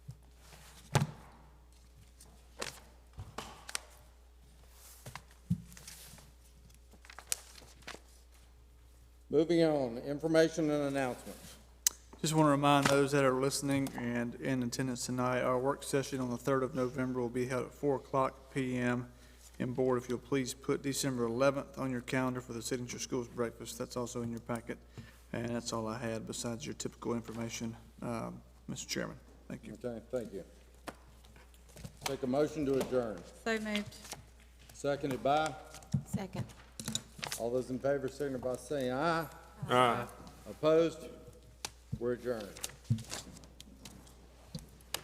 Moving on, information and announcements. Just want to remind those that are listening and in attendance tonight, our work session on the 3rd of November will be held at 4 o'clock PM. And Board, if you'll please put December 11th on your calendar for the Signature Schools Breakfast. That's also in your packet. And that's all I had besides your typical information, um, Mr. Chairman. Thank you. Okay, thank you. Take a motion to adjourn. So moved. Seconded by, Second. all those in favor, signify by saying aye. Aye. Opposed? We're adjourned.